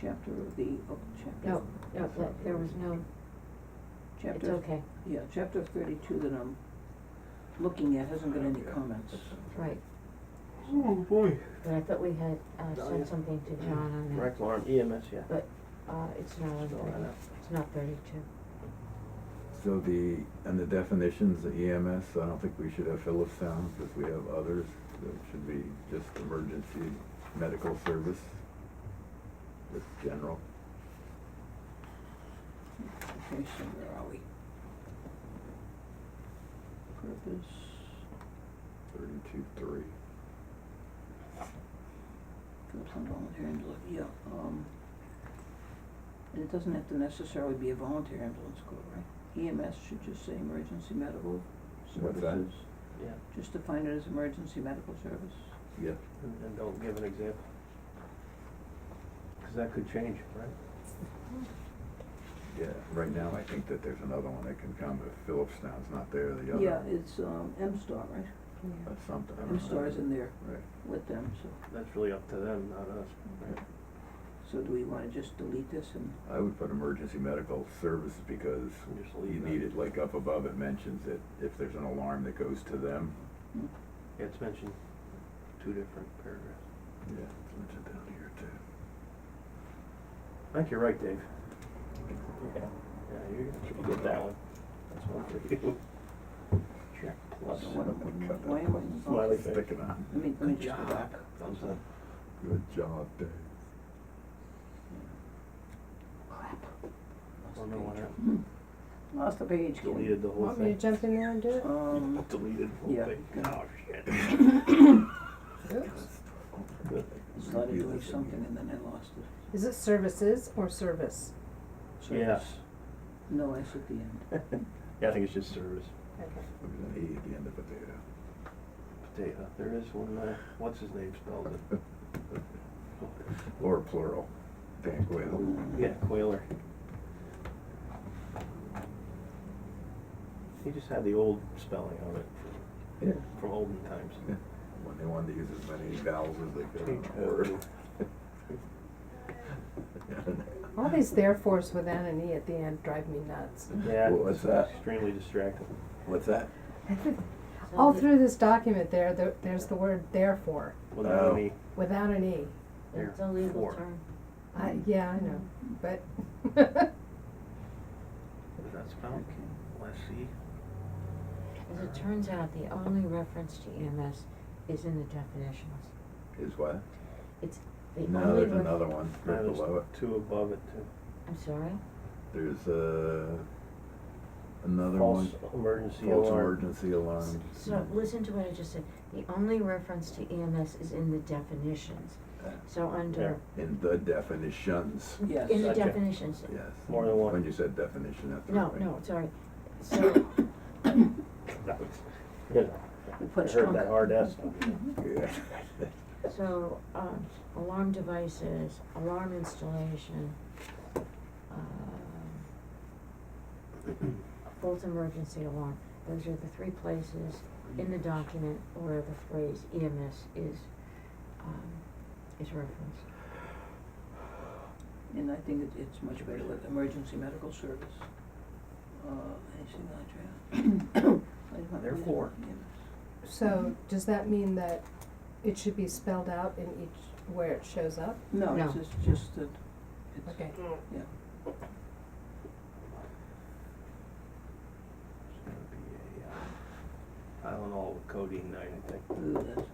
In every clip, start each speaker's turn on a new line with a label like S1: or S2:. S1: chapter of the, oh, chapter.
S2: No, no, but there was no, it's
S1: Chapter,
S2: okay,
S1: yeah, chapter thirty-two that I'm looking at hasn't got any comments.
S2: right,
S3: Oh, boy.
S2: but I thought we had, uh,
S3: Oh, yeah.
S2: sent something to John on that,
S3: Direct alarm, EMS, yeah.
S2: but, uh, it's not on
S3: No, I
S2: thirty,
S3: know.
S2: it's not thirty-two.
S4: So the, and the definitions, the EMS, I don't think we should have Phillips Sound, because we have others, that should be just emergency medical service, just general.
S1: Okay, so where are we? Purpose,
S4: Thirty-two, three.
S1: Phillips and volunteer ambulance, yeah, um. And it doesn't have to necessarily be a volunteer ambulance call, right? EMS should just say emergency medical
S4: What's
S1: services.
S4: that?
S3: Yeah,
S1: Just define it as emergency medical service.
S4: Yeah,
S3: and, and don't give an example. Cause that could change, right?
S4: yeah, right now, I think that there's another one that can come, if Phillips Sound's not there, the other.
S1: Yeah, it's, um, M-Star, right?
S2: Yeah.
S4: That's something, I don't know.
S1: M-Star is in there
S4: Right,
S1: with them, so.
S3: That's really up to them, not us, right?
S2: Mm-hmm.
S1: So do we wanna just delete this and, uh,
S4: I would put emergency medical services, because
S3: And just
S4: you
S3: leave that.
S4: need it, like up above, it mentions that if there's an alarm that goes to them,
S1: hmm,
S3: Yeah, it's mentioned two different paragraphs.
S4: yeah, it's mentioned down here too.
S3: I think you're right, Dave. Yeah, yeah, you're gonna get that one. That's one for you. Check plus.
S1: so what,
S4: Someone cut that
S1: why am I?
S4: one.
S1: oh,
S3: Smiley face.
S4: Sticking on.
S1: Let me, let me
S3: Good
S1: just go
S3: job.
S1: back.
S3: Thumbs up.
S4: Good job, Dave.
S1: Clap. Lost the
S3: Oh, no, why
S1: page.
S3: not?
S1: Hmm. Lost the page, Kim.
S3: Deleted the whole
S5: Want me
S3: thing.
S5: to jump in there and do it?
S1: Um,
S3: Deleted the whole
S1: Yeah.
S3: thing. Oh, shit.
S5: Oops.
S1: I started doing something and then I lost it.
S5: Is it services or service?
S1: So
S3: Yeah.
S1: it's- No S at the end.
S3: Yeah, I think it's just service.
S5: Okay.
S4: There's an E at the end of potato.
S3: Potato. There is one, uh, what's his name spelled it?
S4: Or plural, Banquet.
S3: Yeah, Quailer. He just had the old spelling on it
S4: Yeah.
S3: from- from olden times.
S4: Yeah. When they wanted to use as many vowels as they could on a
S3: Potato.
S4: word.
S5: All these therefores without an E at the end drive me nuts.
S3: Yeah.
S4: What was
S3: it's
S4: that?
S3: Extremely distracting.
S4: What's that?
S5: All through this document there, there, there's the word therefore,
S3: Without
S4: Oh.
S3: any,
S5: without an E.
S3: there,
S2: It's a legal
S3: four.
S2: term.
S5: I, yeah, I know, but
S3: Is that spelled?
S1: Okay.
S3: Let's see.
S2: As it turns out, the only reference to EMS is in the definitions.
S4: Is what?
S2: It's the only.
S4: No, there's
S2: ref-
S4: another one right
S3: No, there's
S4: below it.
S3: Two above it, too.
S2: I'm sorry?
S4: There's, uh, another
S3: False
S4: one.
S3: emergency
S4: False
S3: alarm.
S4: emergency alarm.
S2: So, listen to what I just said. The only reference to EMS is in the definitions. So under,
S4: In the definitions,
S1: Yes.
S2: in the
S3: Gotcha.
S2: definitions,
S4: yes.
S3: More than one.
S4: When you said definition, that's
S2: no,
S4: right.
S2: no, sorry. So,
S3: That was- you know,
S1: We
S3: I
S1: punched
S3: heard that
S1: drunk.
S3: hard S. Mm-hmm.
S4: Yeah.
S2: so, um, alarm devices, alarm installation, um, false emergency alarm. Those are the three places in the document where the phrase EMS is, um, is referenced.
S1: And I think it, it's much better with emergency medical service. Uh, I see that, yeah. I did not-
S3: Therefore.
S1: Yes.
S5: so does that mean that it should be spelled out in each where it shows up?
S1: No, it's
S2: No.
S1: just, just that, it's,
S5: Okay.
S1: yeah.
S3: It's gonna be a, uh, Tylenol with codeine night, I think.
S1: Ooh, that's not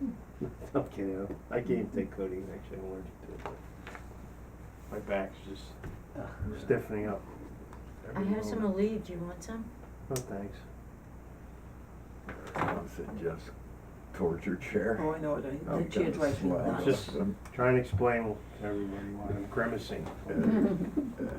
S1: good.
S3: I'm kidding. I can't take codeine, actually, I'm allergic to it. but My back's just
S1: Ugh.
S3: stiffening up.
S2: I
S3: every
S2: have some
S3: moment.
S2: Aleve, do you want some?
S3: No, thanks.
S4: Once in Jeff's torture chair.
S1: Oh, I know it, I,
S4: I'm
S1: the chair
S4: gonna
S1: drives me
S4: slap
S1: nuts.
S3: Just- um,
S4: him.
S3: Try and explain to everybody why I'm grimacing.
S4: Uh, Yeah, yeah.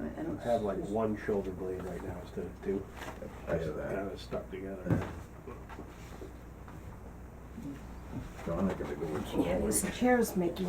S1: I, I don't.
S3: I have like
S1: s-
S3: one shoulder blade right now instead of two.
S4: I have that.
S3: Kind of stuck together.
S4: Yeah. John, I gotta go with.
S5: Yeah, these chairs make me